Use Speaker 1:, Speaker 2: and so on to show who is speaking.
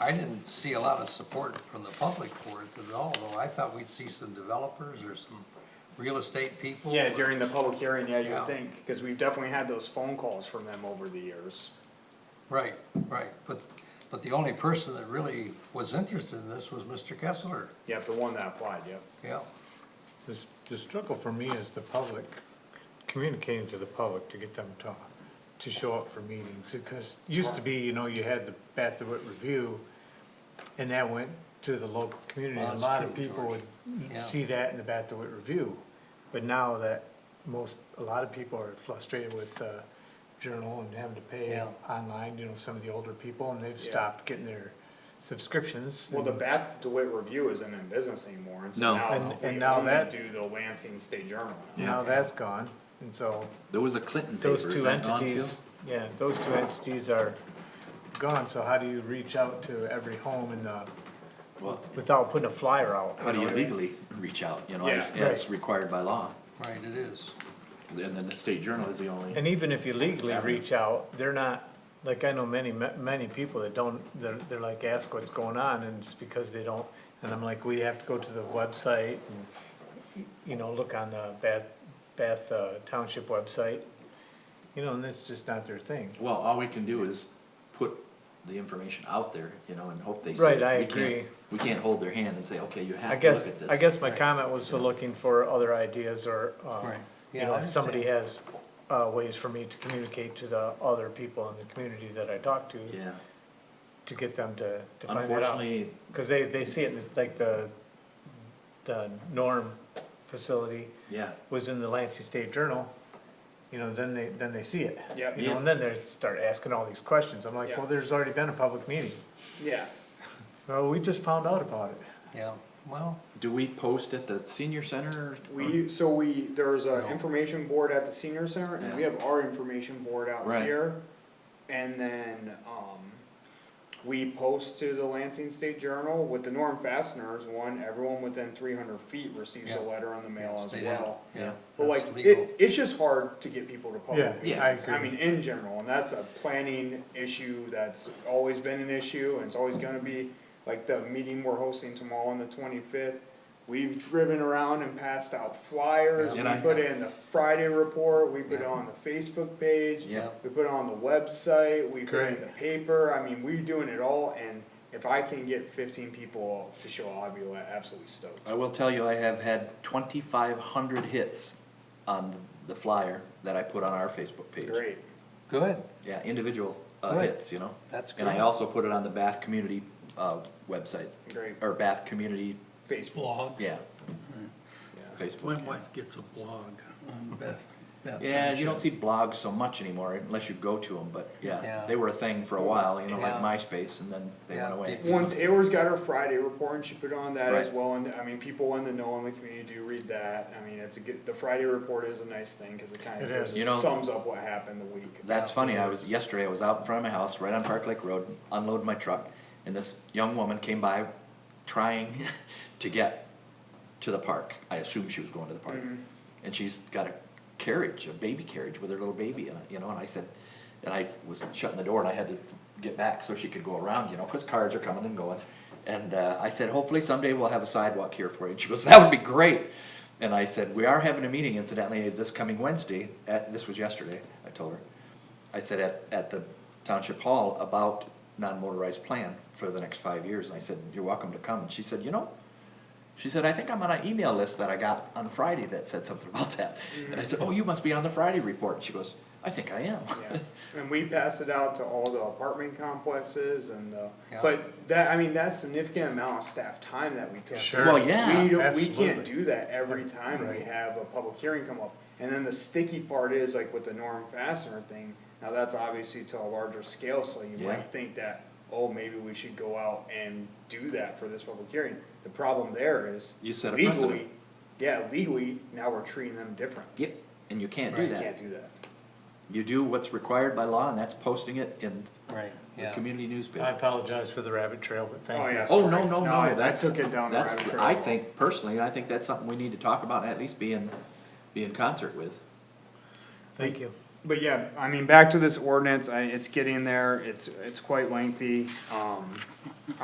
Speaker 1: I didn't see a lot of support from the public for it at all, though I thought we'd see some developers or some real estate people.
Speaker 2: Yeah, during the public hearing, yeah, you
Speaker 1: Yeah.
Speaker 2: would think, because we've definitely had those phone calls from them over the years.
Speaker 1: Right, right, but, but the only person that really was interested in this was Mr. Kessler,
Speaker 2: Yep, the one that applied, yep.
Speaker 1: yeah.
Speaker 3: The, s- the struggle for me is the public, communicating to the public to get them to, to show up for meetings, because it used to be, you know, you had the Bathwood Review, and that went to the local community,
Speaker 1: Well,
Speaker 3: a
Speaker 1: that's
Speaker 3: lot of
Speaker 1: true,
Speaker 3: people
Speaker 1: George.
Speaker 3: would
Speaker 1: Yeah.
Speaker 3: see that in the Bathwood Review. But now that most, a lot of people are frustrated with, uh, Journal and having to pay
Speaker 1: Yeah.
Speaker 3: online, you know, some of the older people, and they've
Speaker 2: Yeah.
Speaker 3: stopped getting their subscriptions.
Speaker 2: Well, the
Speaker 3: and-
Speaker 2: Bat DeWitt Review isn't in business anymore, and so
Speaker 4: No.
Speaker 2: now
Speaker 3: And-
Speaker 2: we
Speaker 3: and now
Speaker 2: only
Speaker 3: that-
Speaker 2: do the Lansing State Journal. now.
Speaker 3: Now that's gone, and so
Speaker 4: There was a Clinton paper,
Speaker 3: those
Speaker 4: is
Speaker 3: two
Speaker 4: that gone too?
Speaker 3: entities, yeah, those two entities are gone, so how do you reach out to every home in the,
Speaker 4: Well,
Speaker 3: without putting a flyer out?
Speaker 4: how do you legally reach out, you know,
Speaker 2: Yeah,
Speaker 4: as, as
Speaker 3: right.
Speaker 4: required by law?
Speaker 1: Right, it is,
Speaker 4: And then the state journal is the only,
Speaker 3: And even if you legally
Speaker 4: Avenue.
Speaker 3: reach out, they're not, like, I know many, ma- many people that don't, they're, they're like, ask what's going on, and it's because they don't, and I'm like, we have to go to the website, and, you know, look on the Bath, Bath uh, Township website, you know, and that's just not their thing.
Speaker 4: well, all we can do is put the information out there, you know, and hope they see.
Speaker 3: Right,
Speaker 4: it.
Speaker 3: I
Speaker 4: We can't-
Speaker 3: agree.
Speaker 4: We can't hold their hand and say, okay, you
Speaker 3: I
Speaker 4: have to look
Speaker 3: guess,
Speaker 4: at this.
Speaker 3: I guess my comment was to looking for other ideas or, um,
Speaker 1: Right.
Speaker 3: you
Speaker 1: Yeah,
Speaker 3: know,
Speaker 1: I
Speaker 3: if somebody has, uh, ways for me to communicate to the other people in the community that I talk to,
Speaker 4: Yeah,
Speaker 3: to get them to, to find that out.
Speaker 4: unfortunately,
Speaker 3: Cause they, they see it, it's like the, the Norm facility
Speaker 4: yeah,
Speaker 3: was in the Lansing State Journal, you know, then they, then they see it.
Speaker 2: Yep.
Speaker 3: You know, and then they start asking all these questions, I'm like,
Speaker 2: Yeah.
Speaker 3: well, there's already been a public meeting,
Speaker 2: Yeah,
Speaker 3: well, we just found out about it.
Speaker 1: yeah, well,
Speaker 4: do we post at the senior center? or-
Speaker 2: we, so we, there's
Speaker 1: No.
Speaker 2: a information board at the senior center, and we
Speaker 4: Yeah.
Speaker 2: have our information board out
Speaker 4: Right.
Speaker 2: here. And then, um, we post to the Lansing State Journal with the Norm Fasteners one, everyone within three hundred feet receives
Speaker 1: Yeah.
Speaker 2: a letter in the mail as
Speaker 1: they
Speaker 2: well.
Speaker 1: don't, yeah,
Speaker 2: But like,
Speaker 1: that's legal.
Speaker 2: it, it's just hard to get people to
Speaker 3: Yeah,
Speaker 2: public
Speaker 3: I
Speaker 2: meetings,
Speaker 3: agree.
Speaker 2: I mean, in general, and that's a planning issue that's always been an issue, and it's always gonna be. Like the meeting we're hosting tomorrow on the twenty-fifth, we've driven around and passed out flyers, we
Speaker 4: Yeah, and I-
Speaker 2: put it in the Friday report, we put it
Speaker 1: Yeah.
Speaker 2: on the Facebook page.
Speaker 4: Yeah.
Speaker 2: We put it on the website, we put it in
Speaker 3: Great.
Speaker 2: the paper, I mean, we're doing it all, and if I can get fifteen people to show up, I'll be absolutely stoked.
Speaker 4: I will tell you, I have had twenty-five hundred hits on the flyer that I put on our Facebook page.
Speaker 2: Great,
Speaker 1: Good,
Speaker 4: Yeah, individual uh,
Speaker 1: Good.
Speaker 4: hits, you know?
Speaker 1: That's
Speaker 4: And I
Speaker 1: good.
Speaker 4: also put it on the Bath Community uh, website,
Speaker 2: great,
Speaker 4: or Bath Community,
Speaker 2: Facebook,
Speaker 1: blog,
Speaker 4: yeah,
Speaker 2: yeah,
Speaker 4: Facebook.
Speaker 5: My wife gets a blog on Beth. Beth
Speaker 4: Yeah, you
Speaker 5: Township.
Speaker 4: don't see blogs so much anymore unless you go to them, but
Speaker 1: Yeah.
Speaker 4: yeah, they were a thing for a while, you know, like
Speaker 1: Yeah.
Speaker 4: MySpace, and then they went
Speaker 1: Yeah,
Speaker 4: away.
Speaker 1: people-
Speaker 2: One, Taylor's got her Friday report and she put on that as
Speaker 4: Right.
Speaker 2: well, and I mean, people in the know in the community do read that, I mean, it's a good, the Friday report is a nice thing, cause it kind of
Speaker 3: It is.
Speaker 2: just
Speaker 4: You know-
Speaker 2: sums up what happened the week.
Speaker 4: That's funny, I was, yesterday I was out in front of my house, right on Park Lake Road, unloading my truck, and this young woman came by trying to get to the park. I assumed she was going to the park.
Speaker 1: Mm-hmm.
Speaker 4: And she's got a carriage, a baby carriage with her little baby in it, you know, and I said, and I was shutting the door and I had to get back so she could go around, you know, cause cars are coming and going. And, uh, I said, hopefully someday we'll have a sidewalk here for you. And she goes, that would be great. And I said, we are having a meeting incidentally this coming Wednesday, at, this was yesterday, I told her. I said at, at the township hall about non-motorized plan for the next five years, and I said, you're welcome to come, and she said, you know, she said, I think I'm on an email list that I got on Friday that said something about that, and I said, oh, you must be on the Friday report, and she goes, I think I am.
Speaker 2: Yeah, and we passed it out to all the apartment complexes and, uh,
Speaker 1: Yeah.
Speaker 2: but that, I mean, that's significant amount of staff time that we took.
Speaker 3: Sure.
Speaker 4: Well, yeah,
Speaker 2: We don't, we can't
Speaker 3: absolutely.
Speaker 2: do that every time we
Speaker 3: Right.
Speaker 2: have a public hearing come up. And then the sticky part is like with the Norm Fastener thing, now that's obviously to a larger scale, so you
Speaker 4: Yeah.
Speaker 2: might think that, oh, maybe we should go out and do that for this public hearing. The problem there is
Speaker 4: You set a
Speaker 2: legally,
Speaker 4: precedent.
Speaker 2: yeah, legally, now we're treating them different.
Speaker 4: yep, and you can't do
Speaker 2: You
Speaker 1: Right.
Speaker 2: can't
Speaker 4: that,
Speaker 2: do that.
Speaker 4: you do what's required by law, and that's posting it in
Speaker 1: right,
Speaker 4: the
Speaker 1: yeah.
Speaker 4: community
Speaker 3: I
Speaker 4: newspaper.
Speaker 3: apologize for the rabbit trail, but
Speaker 2: Oh,
Speaker 3: thank you.
Speaker 2: yeah.
Speaker 4: Oh, no,
Speaker 2: Sorry.
Speaker 4: no,
Speaker 2: No, I- I
Speaker 4: no, that's,
Speaker 2: took it down the
Speaker 4: that's,
Speaker 2: rabbit trail.
Speaker 4: I think, personally, I think that's something we need to talk about, and at least be in, be in concert with.
Speaker 3: Thank you.
Speaker 2: But yeah, I mean, back to this ordinance, I, it's getting there, it's, it's quite lengthy, um,